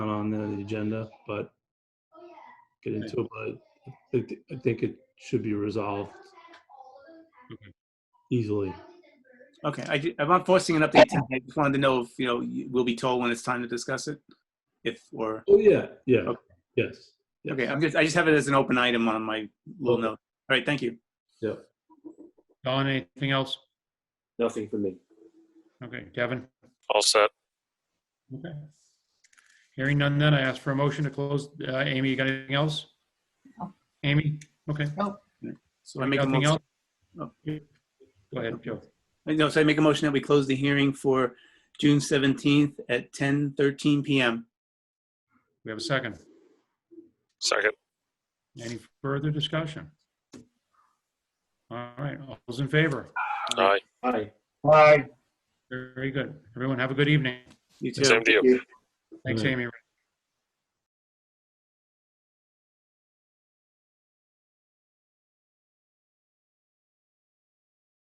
the agenda, but get into it, but I thi- I think it should be resolved Okay. easily. Okay, I, ju- I'm not forcing an update. tonight. I just wanted to know if, you know, you- we'll be told when it's time to discuss it. If, or, Oh, yeah, yeah, Okay. yes. yes. okay, I'm just, I just have it as an open item on my little Okay. note. All right, thank you. Don, anything else? Nothing for me. Okay, Kevin? All set. Okay. Hearing none then, I ask for a motion to close. Uh, Amy, you got anything else? No. Amy? Okay. So I make a Nothing motion, else? Go ahead, Joe. no, so I make a motion that we close the hearing for June 17th at 10:13 PM. We have a second. Second. Any further discussion? All right, all those in favor? Aye. Aye. Very good. Everyone have a good evening. You too. Same to you. Thanks, Right. Amy.